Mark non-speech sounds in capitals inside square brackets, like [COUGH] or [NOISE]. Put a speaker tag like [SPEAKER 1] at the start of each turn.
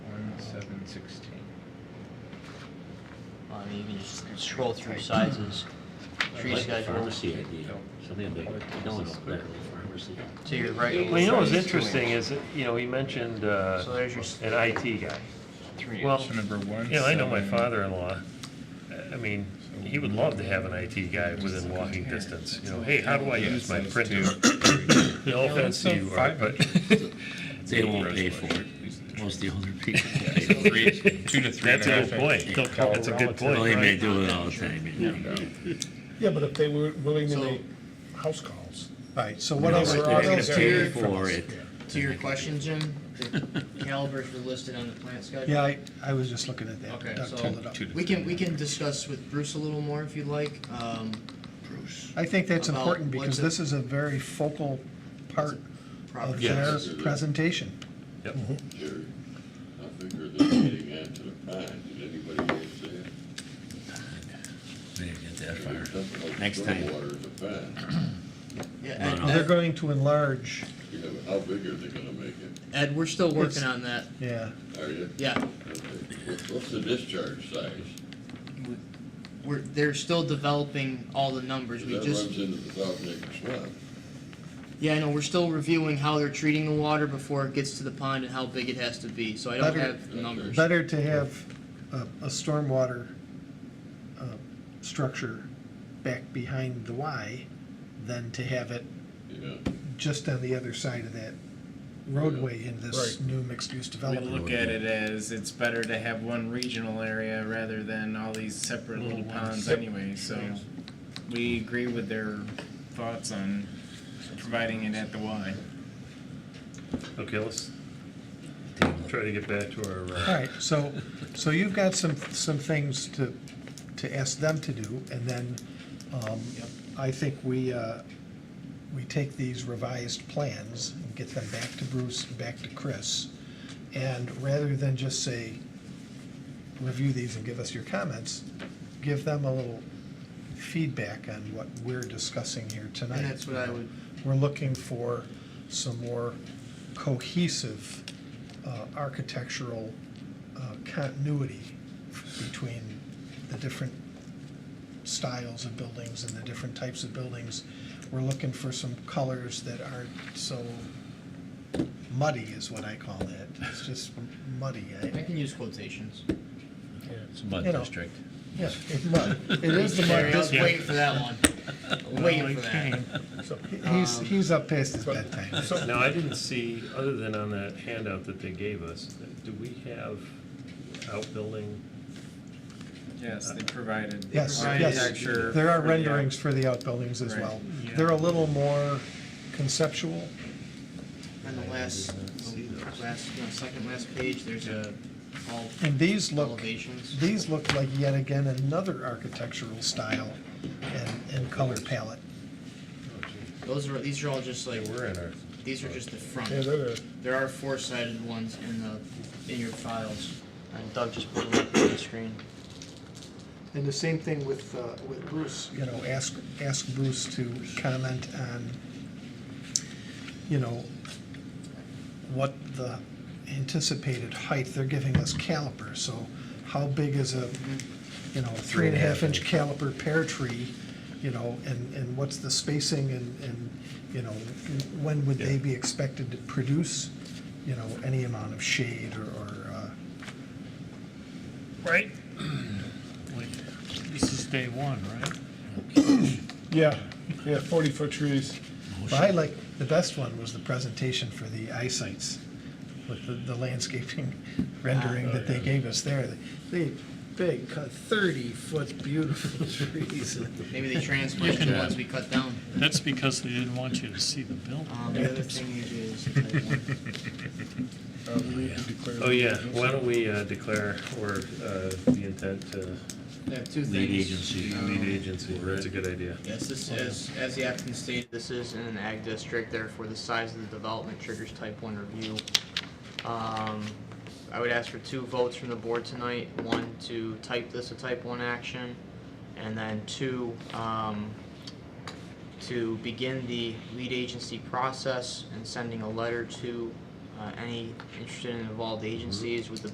[SPEAKER 1] sixteen.
[SPEAKER 2] I mean, you can just scroll through sizes, tree
[SPEAKER 3] Like the
[SPEAKER 2] schedule,
[SPEAKER 3] pharmacy idea, something big, no one's better than pharmacy.
[SPEAKER 2] to your right.
[SPEAKER 4] Well, you know what's
[SPEAKER 1] Size two
[SPEAKER 4] interesting
[SPEAKER 1] inch.
[SPEAKER 4] is, that, you know, he mentioned uh,
[SPEAKER 2] So there's your s-
[SPEAKER 4] an IT guy.
[SPEAKER 1] Three
[SPEAKER 4] Well,
[SPEAKER 1] inch, so number one.
[SPEAKER 4] You know, I know my
[SPEAKER 1] seven.
[SPEAKER 4] father-in-law, I mean, he would love to have an IT guy within walking distance, you know, hey, how do I
[SPEAKER 1] Yeah,
[SPEAKER 4] use my
[SPEAKER 1] size
[SPEAKER 4] printer? [COUGHS]
[SPEAKER 1] two.
[SPEAKER 4] No offense to you, Art, but
[SPEAKER 3] They won't pay for it, most of the older people pay for it.
[SPEAKER 1] Three, [LAUGHS] two to three.
[SPEAKER 4] that's a good
[SPEAKER 1] traffic.
[SPEAKER 4] point, that's a good point,
[SPEAKER 3] Well, they may
[SPEAKER 4] right?
[SPEAKER 3] do it all the time, you know.
[SPEAKER 5] Yeah, but if they were willing to
[SPEAKER 2] So-
[SPEAKER 5] make house calls. Right, so
[SPEAKER 3] You
[SPEAKER 5] what
[SPEAKER 3] know,
[SPEAKER 5] else?
[SPEAKER 3] like,
[SPEAKER 2] we're
[SPEAKER 5] what
[SPEAKER 3] they're
[SPEAKER 2] all
[SPEAKER 3] gonna
[SPEAKER 5] else are
[SPEAKER 3] pay
[SPEAKER 5] they from
[SPEAKER 3] for
[SPEAKER 5] us?
[SPEAKER 3] it.
[SPEAKER 2] To your question, Jim,
[SPEAKER 3] [LAUGHS]
[SPEAKER 2] the calibers were listed on the plant schedule.
[SPEAKER 5] Yeah, I, I was just looking at
[SPEAKER 2] Okay,
[SPEAKER 5] that. Doug
[SPEAKER 2] so-
[SPEAKER 5] pulled it up.
[SPEAKER 1] Two to
[SPEAKER 2] We
[SPEAKER 1] three.
[SPEAKER 2] can, we can discuss with Bruce a little more if you'd like. Um, Bruce.
[SPEAKER 5] I think that's
[SPEAKER 2] About
[SPEAKER 5] important
[SPEAKER 2] what's
[SPEAKER 5] because
[SPEAKER 2] it-
[SPEAKER 5] this is a very focal part of
[SPEAKER 2] Property.
[SPEAKER 5] their
[SPEAKER 6] Yes.
[SPEAKER 5] presentation.
[SPEAKER 4] Yep.
[SPEAKER 6] Jerry, I figure this meeting out to the pine, did anybody else say it?
[SPEAKER 3] They get that
[SPEAKER 6] There's
[SPEAKER 3] far.
[SPEAKER 6] something like
[SPEAKER 3] Next time.
[SPEAKER 6] Stillwater's a pine.
[SPEAKER 2] Yeah,
[SPEAKER 3] No, no.
[SPEAKER 5] They're
[SPEAKER 2] Ed- Ed,
[SPEAKER 5] going to enlarge,
[SPEAKER 6] You know, how big are they gonna make it?
[SPEAKER 2] Ed, we're still working
[SPEAKER 5] It's-
[SPEAKER 2] on that.
[SPEAKER 5] yeah.
[SPEAKER 6] Are you?
[SPEAKER 2] Yeah,
[SPEAKER 6] Okay. What- What's the discharge size?
[SPEAKER 2] we're, they're still developing all the numbers. We
[SPEAKER 6] That
[SPEAKER 2] just,
[SPEAKER 6] runs into the South Nick Swamp.
[SPEAKER 2] yeah, I know, we're still reviewing how they're treating the water before it gets to the pond and how big it has to be, so I don't
[SPEAKER 5] Better-
[SPEAKER 2] have the numbers.
[SPEAKER 5] Better to have a, a stormwater, uh, structure back behind the Y than to have it
[SPEAKER 6] Yeah,
[SPEAKER 5] just on the other side of that roadway in this new mixed-use
[SPEAKER 7] We
[SPEAKER 5] development.
[SPEAKER 7] look at it as it's better to have one regional area rather than all these separate little ponds anyway, so we agree with their thoughts on providing it at the Y.
[SPEAKER 4] Okay, let's try to get back to our,
[SPEAKER 5] All
[SPEAKER 4] uh,
[SPEAKER 5] right, so, so you've got some, some things to, to ask them to do, and then, um, I think we, uh, we take these revised plans and get them back to Bruce, and back to Chris. And rather than just say, review these and give us your comments, give them a little feedback on what we're discussing here tonight.
[SPEAKER 2] And that's what I would,
[SPEAKER 5] We're looking for some more cohesive uh, architectural uh, continuity between the different styles of buildings and the different types of buildings. We're looking for some colors that aren't so muddy is what I call it. It's just muddy. eh?
[SPEAKER 2] I
[SPEAKER 5] I-
[SPEAKER 2] can use quotations.
[SPEAKER 3] It's a mud
[SPEAKER 5] You know.
[SPEAKER 3] district.
[SPEAKER 5] Yeah, it's mud. It is the
[SPEAKER 2] Sorry, I was
[SPEAKER 5] mud.
[SPEAKER 2] waiting for that
[SPEAKER 5] [LAUGHS]
[SPEAKER 2] one. Waiting for that.
[SPEAKER 5] He's, he's up past his bedtime.
[SPEAKER 4] now, I didn't see, other than on that handout that they gave us, do we have outbuilding?
[SPEAKER 7] Yes, they provided.
[SPEAKER 5] Yes,
[SPEAKER 7] Provided
[SPEAKER 5] yes.
[SPEAKER 7] architecture
[SPEAKER 5] There are
[SPEAKER 7] for the-
[SPEAKER 5] renderings for the outbuildings as
[SPEAKER 7] Right.
[SPEAKER 5] well. They're a little more conceptual.
[SPEAKER 2] On the last, last, no, second last page, there's a, all
[SPEAKER 5] And these look,
[SPEAKER 2] elevations.
[SPEAKER 5] these look like yet again another architectural style and, and color palette.
[SPEAKER 2] Those are, these are all just like,
[SPEAKER 4] Oh, We're in our,
[SPEAKER 2] these are just the front. There are four-sided ones in the, in your files. And Doug just put them up on the screen.
[SPEAKER 8] And the same thing with, uh, with Bruce.
[SPEAKER 5] You know, ask, ask Bruce to comment on, you know, what the anticipated height, they're giving us caliper, so how big is a, you know, a Mm-hmm. three and a half inch caliper pear tree, you know, and, and what's the spacing and, and, you know, when would they be expected to produce, you know, any amount of shade or, or, uh,
[SPEAKER 9] Right? This is day one, right?
[SPEAKER 8] Yeah, yeah, forty foot trees.
[SPEAKER 5] But I like, the best one was the presentation for the eyesights with the, the landscaping [LAUGHS] rendering that they gave us there. They, big, thirty-foot beautiful [LAUGHS] trees.
[SPEAKER 2] Maybe they transplanted the ones we cut down.
[SPEAKER 9] That's because they didn't want you to see the building.
[SPEAKER 2] Um, the other thing is, is
[SPEAKER 4] oh, yeah, why don't we uh, declare or uh, the intent to
[SPEAKER 2] I have
[SPEAKER 4] [LAUGHS]
[SPEAKER 2] two things.
[SPEAKER 3] Lead agency.
[SPEAKER 2] Um,
[SPEAKER 4] lead agency, that's a good idea.
[SPEAKER 2] Yes, this is, as the applicant stated, this is in an ag district, therefore the size of the development triggers type one review. Um, I would ask for two votes from the board tonight, one to type this a type one action, and then two, um, to begin the lead agency process and sending a letter to, uh, any interested and involved agencies with the